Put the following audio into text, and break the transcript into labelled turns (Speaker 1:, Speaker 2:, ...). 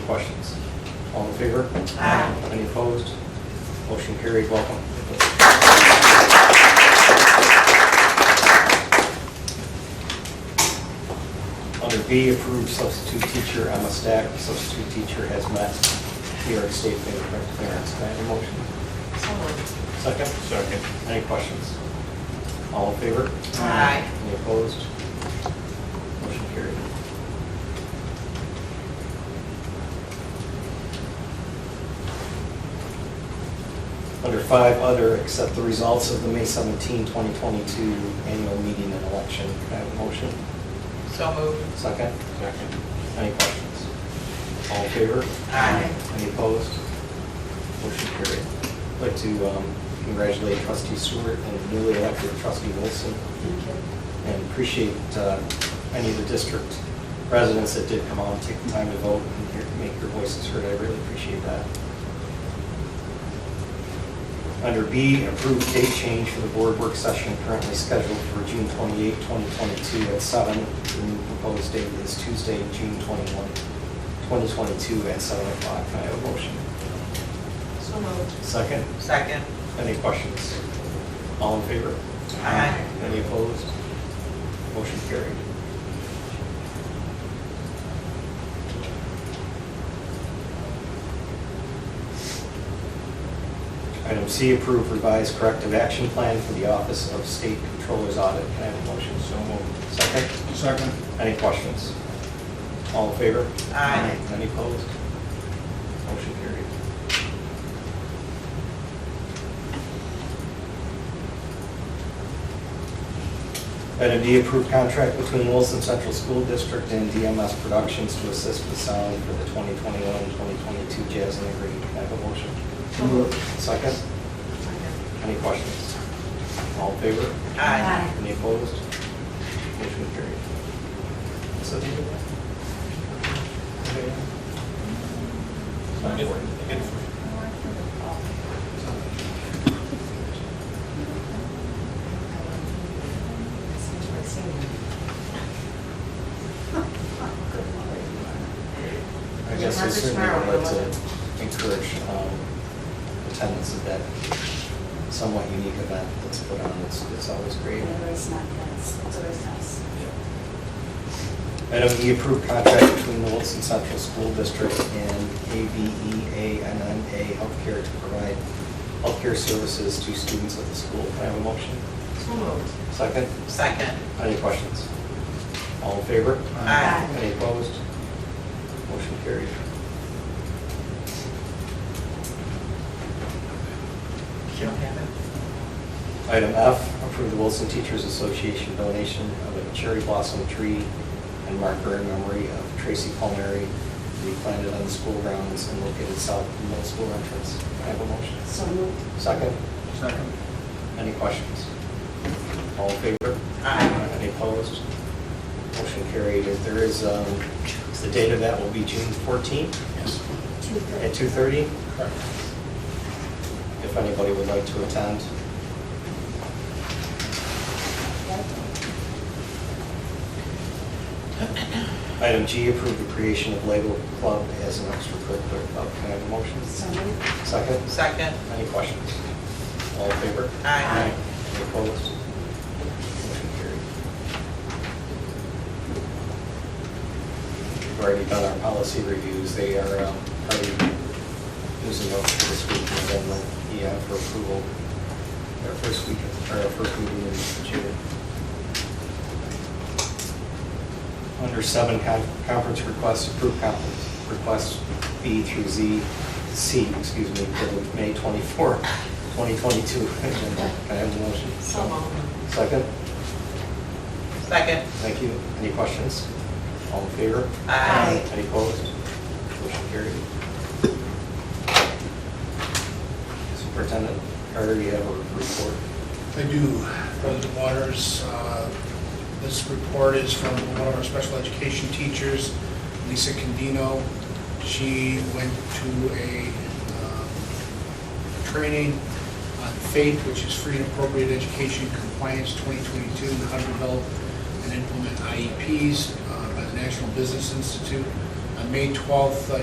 Speaker 1: questions? All in favor?
Speaker 2: Aye.
Speaker 1: Any opposed? Motion carried, welcome. Under B, approved substitute teacher Emma Stack, substitute teacher has met New York State fingerprint clearance. Can I have a motion?
Speaker 2: So moved.
Speaker 1: Second? Second. Any questions? All in favor?
Speaker 2: Aye.
Speaker 1: Any opposed? Motion carried. Under five, other, accept the results of the May 17, 2022 annual meeting and election. Can I have a motion?
Speaker 2: So moved.
Speaker 1: Second? Second. Any questions? All in favor?
Speaker 2: Aye.
Speaker 1: Any opposed? Motion carried. I'd like to um, congratulate trustee Stewart and newly elected trustee Wilson, and appreciate uh, any of the district residents that did come out and take the time to vote and hear- make your voices heard. I really appreciate that. Under B, approved date change for the board work session currently scheduled for June 28, 2022 at 7. The new proposed date is Tuesday, June 21, 2022 at 7 o'clock. Can I have a motion?
Speaker 2: So moved.
Speaker 1: Second,
Speaker 2: Second.
Speaker 1: any questions? All in favor?
Speaker 2: Aye.
Speaker 1: Any opposed? Motion carried. Item C, approve revised corrective action plan for the Office of State Controller's Audit. Can I have a motion? So moved. Second?
Speaker 3: Second.
Speaker 1: Any questions? All in favor?
Speaker 2: Aye.
Speaker 1: Any opposed? Motion carried. Item D, approved contract between Wilson Central School District and DMS Productions to assist with sound for the 2021-2022 Jazz and Agree. Can I have a motion?
Speaker 2: So moved.
Speaker 1: Second? Any questions? All in favor?
Speaker 2: Aye.
Speaker 1: Any opposed? Motion carried. Is that the end of it? It's not important. I guess we certainly would like to encourage um, attendance at that somewhat unique event that's put on. It's, it's always great.
Speaker 4: It's not nice, it's always nice.
Speaker 1: Item E, approved contract between the Wilson Central School District and E ABEANNA Healthcare to provide healthcare services to students at the school. Can I have a motion?
Speaker 2: So moved.
Speaker 1: Second?
Speaker 2: Second.
Speaker 1: Any questions? All in favor?
Speaker 2: Aye.
Speaker 1: Any opposed? Motion carried.
Speaker 2: You don't have it?
Speaker 1: Item F, approve the Wilson Teachers Association donation of a cherry blossom tree and marker in memory of Tracy Palmieri, to be planted on the school grounds and located south of the middle school entrance. Can I have a motion?
Speaker 4: So moved.
Speaker 1: Second?
Speaker 3: Second.
Speaker 1: Any questions? All in favor?
Speaker 2: Aye.
Speaker 1: Any opposed? Motion carried. If There is, um, the date of that will be June 14th
Speaker 3: Yes.
Speaker 4: Two thirty.
Speaker 1: at 2:30, if anybody would like to attend. Item G, approve the creation of Label Club as an extracurricular club. Oh, Can I have a motion?
Speaker 4: So moved.
Speaker 1: Second?
Speaker 2: Second.
Speaker 1: Any questions? All in favor?
Speaker 2: Aye.
Speaker 1: Any opposed? Motion carried. We've already done our policy reviews. They are um, already using those for this week and then the EF for approval, our first week, or our first meeting in June. Under seven, con- conference requests, approved conference requests B through Z, C, excuse me, for the May 24, 2022 agenda. Can I have a motion?
Speaker 2: So moved.
Speaker 1: Second?
Speaker 2: Second.
Speaker 1: Thank you. Any questions? All in favor?
Speaker 2: Aye.
Speaker 1: Any opposed? Motion carried. Superintendent Carter, you have a report.
Speaker 3: I do, President Waters, uh, this report is from one of our special education teachers, Lisa Condino. She went to a uh, training on FAPE, which is Free and Appropriate Education Compliance 2022, and how to develop E and implement IEPs uh, by the National Business Institute. On May 12th, uh,